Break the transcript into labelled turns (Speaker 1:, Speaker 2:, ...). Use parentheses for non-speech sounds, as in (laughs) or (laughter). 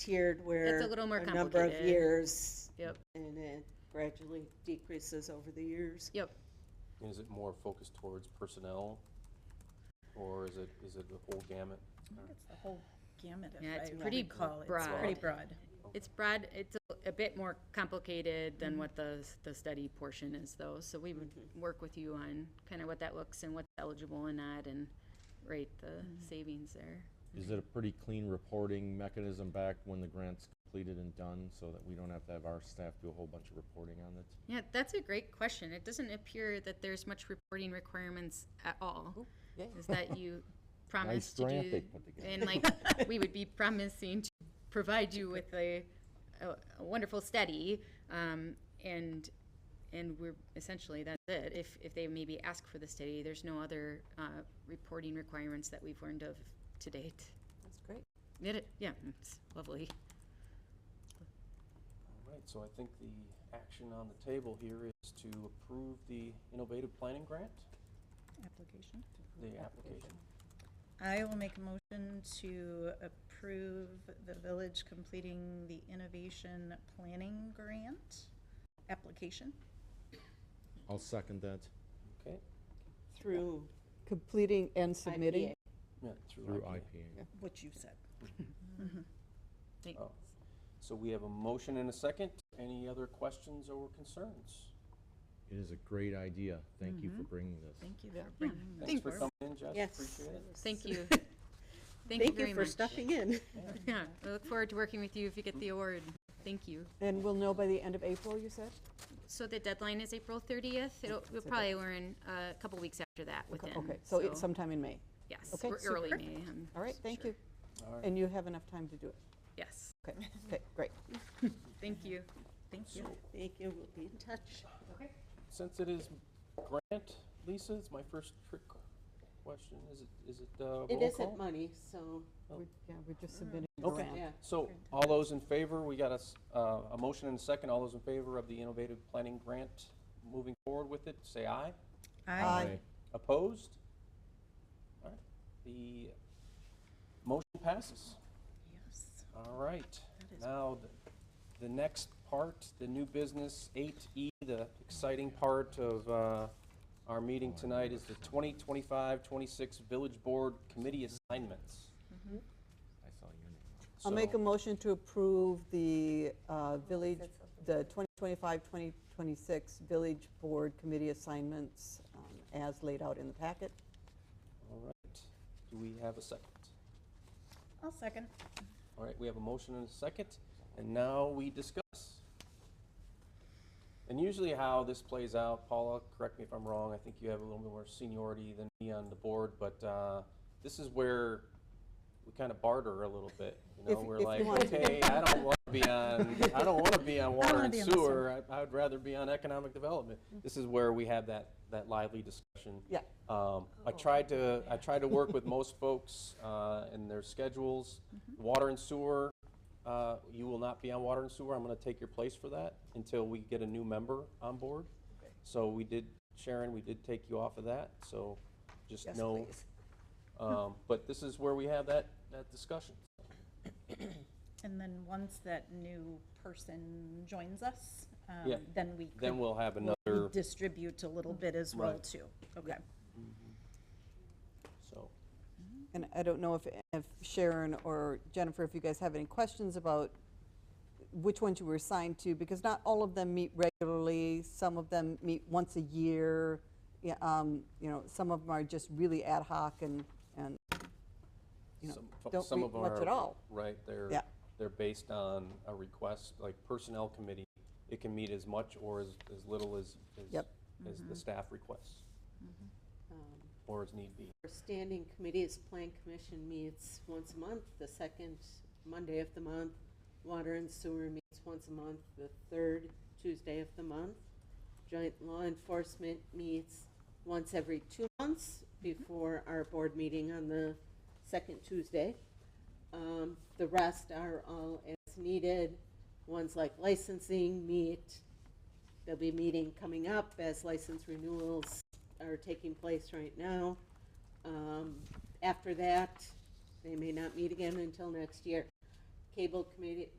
Speaker 1: tiered where.
Speaker 2: a little more
Speaker 1: number of
Speaker 2: complicated.
Speaker 1: years,
Speaker 2: Yep,
Speaker 1: and it gradually decreases over the years.
Speaker 2: yep.
Speaker 3: And Is it more focused towards personnel, or is it, is it the whole gamut?
Speaker 4: It's the whole gamut,
Speaker 2: Yeah, it's
Speaker 4: if I
Speaker 2: pretty
Speaker 4: recall. It's
Speaker 2: broad.
Speaker 4: pretty broad.
Speaker 2: It's broad, it's a- a bit more complicated than what the, the study portion is though. So we would work with you on kind of what that looks and what's eligible and not and rate the savings there.
Speaker 5: Is it a pretty clean reporting mechanism back when the grant's completed and done, so that we don't have to have our staff do a whole bunch of reporting on it?
Speaker 2: Yeah, that's a great question. It doesn't appear that there's much reporting requirements at all. Is that you promise to
Speaker 5: grant they
Speaker 2: do,
Speaker 5: put together.
Speaker 2: and
Speaker 6: (laughs)
Speaker 2: like, we would be promising to provide you with a, a- a wonderful study, um, and, and we're, essentially, that's it. If, if they maybe ask for the study, there's no other, uh, reporting requirements that we've learned of to date.
Speaker 6: That's great.
Speaker 2: Did it? Yeah, it's lovely.
Speaker 3: All right, so I think the action on the table here is to approve the innovative planning grant,
Speaker 4: Application.
Speaker 3: the application.
Speaker 4: I will make a motion to approve the village completing the innovation planning grant application.
Speaker 5: I'll second that.
Speaker 3: Okay,
Speaker 1: Through
Speaker 6: Completing and submitting.
Speaker 1: IPA.
Speaker 3: yeah, through
Speaker 5: Through
Speaker 3: IPA.
Speaker 5: IPA.
Speaker 4: What you said.
Speaker 2: Thank-
Speaker 3: Oh. So we have a motion and a second. Any other questions or concerns?
Speaker 5: It is a great idea. Thank you for bringing this.
Speaker 4: Thank you for
Speaker 2: Yeah.
Speaker 4: bringing
Speaker 3: Thanks for coming in, Jess,
Speaker 1: Yes.
Speaker 3: appreciate it.
Speaker 1: (laughs)
Speaker 2: Thank you.
Speaker 1: Thank
Speaker 2: very
Speaker 1: you for
Speaker 2: much.
Speaker 1: stepping in.
Speaker 2: (laughs) Yeah, I look forward to working with you if you get the award. Thank you.
Speaker 6: And we'll know by the end of April, you said?
Speaker 2: So the deadline is April 30th. It'll, we'll probably learn uh, a couple weeks after that
Speaker 6: Okay,
Speaker 2: within.
Speaker 6: Okay, so it's sometime in May.
Speaker 2: Yes,
Speaker 6: okay,
Speaker 2: we're early May. I'm
Speaker 6: All right, thank
Speaker 2: sure.
Speaker 6: you. And you have enough time to do it.
Speaker 2: Yes,
Speaker 6: Okay, okay, great.
Speaker 2: thank you. Thank you.
Speaker 1: Thank you, we'll be in touch.
Speaker 3: Since it is grant, Lisa, it's my first trick question. Is it, is it, uh, roll
Speaker 1: It
Speaker 3: call?
Speaker 1: isn't money, so,
Speaker 6: We- Yeah, we're just submitting a
Speaker 3: Okay.
Speaker 6: grant.
Speaker 1: yeah.
Speaker 3: So, all those in favor, we got a, s- uh, a motion and a second. All those in favor of the innovative planning grant, moving forward with it, say aye.
Speaker 4: Aye.
Speaker 3: Opposed? All right, the motion passes.
Speaker 4: Yes.
Speaker 3: All right, now, the- the next part, the new business, 8E, the exciting part of uh, our meeting tonight is the 2025-26 Village Board Committee Assignments.
Speaker 5: I saw your name.
Speaker 6: I'll make a
Speaker 3: So-
Speaker 6: motion to approve the uh, village, the 2025, 2026 Village Board Committee assignments um, as laid out in the packet.
Speaker 3: All right, do we have a second?
Speaker 4: I'll second.
Speaker 3: All right, we have a motion and a second, and now we discuss. And usually how this plays out, Paula, correct me if I'm wrong, I think you have a little bit more seniority than me on the board, but uh, this is where we kind of barter a little bit, you know?
Speaker 6: If-
Speaker 3: We're
Speaker 6: if you
Speaker 3: like,
Speaker 6: want to.
Speaker 3: okay, I don't want to be on, I don't want to
Speaker 4: (laughs)
Speaker 3: be on water
Speaker 4: wanna
Speaker 3: and
Speaker 4: be on Mm. this one.
Speaker 3: sewer, I- I would rather be on economic development. This is where we have that, that lively discussion.
Speaker 6: Yeah.
Speaker 3: Um, I
Speaker 4: Oh.
Speaker 3: tried to, I tried to work with most folks uh, and their schedules.
Speaker 4: Mm-hmm.
Speaker 3: Water and sewer, uh, you will not be on water and sewer. I'm going to take your place for that until we get a new member on board. So we did, Sharon, we did take you off of that, so just know. um, But this is where we have that, that discussion.
Speaker 4: And then once that new person joins us, um,
Speaker 3: Yeah.
Speaker 4: then we could.
Speaker 3: Then we'll have
Speaker 4: we'll
Speaker 3: another,
Speaker 4: Distribute a little bit as well
Speaker 3: Right.
Speaker 4: too. Okay.
Speaker 3: so.
Speaker 6: And I don't know if, if Sharon or Jennifer, if you guys have any questions about which ones you were assigned to, because not all of them meet regularly. Some of them meet once a year. Yeah, um, you know, some of them are just really ad hoc and, and, you know,
Speaker 3: Some fo-
Speaker 6: don't
Speaker 3: some
Speaker 6: read
Speaker 3: of them
Speaker 6: much at
Speaker 3: are,
Speaker 6: all.
Speaker 3: Right, they're,
Speaker 6: Yeah.
Speaker 3: they're based on a request, like Personnel Committee, it can meet as much or as, as little as, as-
Speaker 6: Yep.
Speaker 3: as the staff requests,
Speaker 1: um,
Speaker 3: or as need be.
Speaker 1: Our standing committees, Plan Commission meets once a month, the second Monday of the month. Water and Sewer meets once a month, the third Tuesday of the month. Joint Law Enforcement meets once every two months before our board meeting on the second Tuesday. Um, The rest are all as needed. Ones like licensing meet, there'll be a meeting coming up as license renewals are taking place right now. Um, After that, they may not meet again until next year. Cable Committee,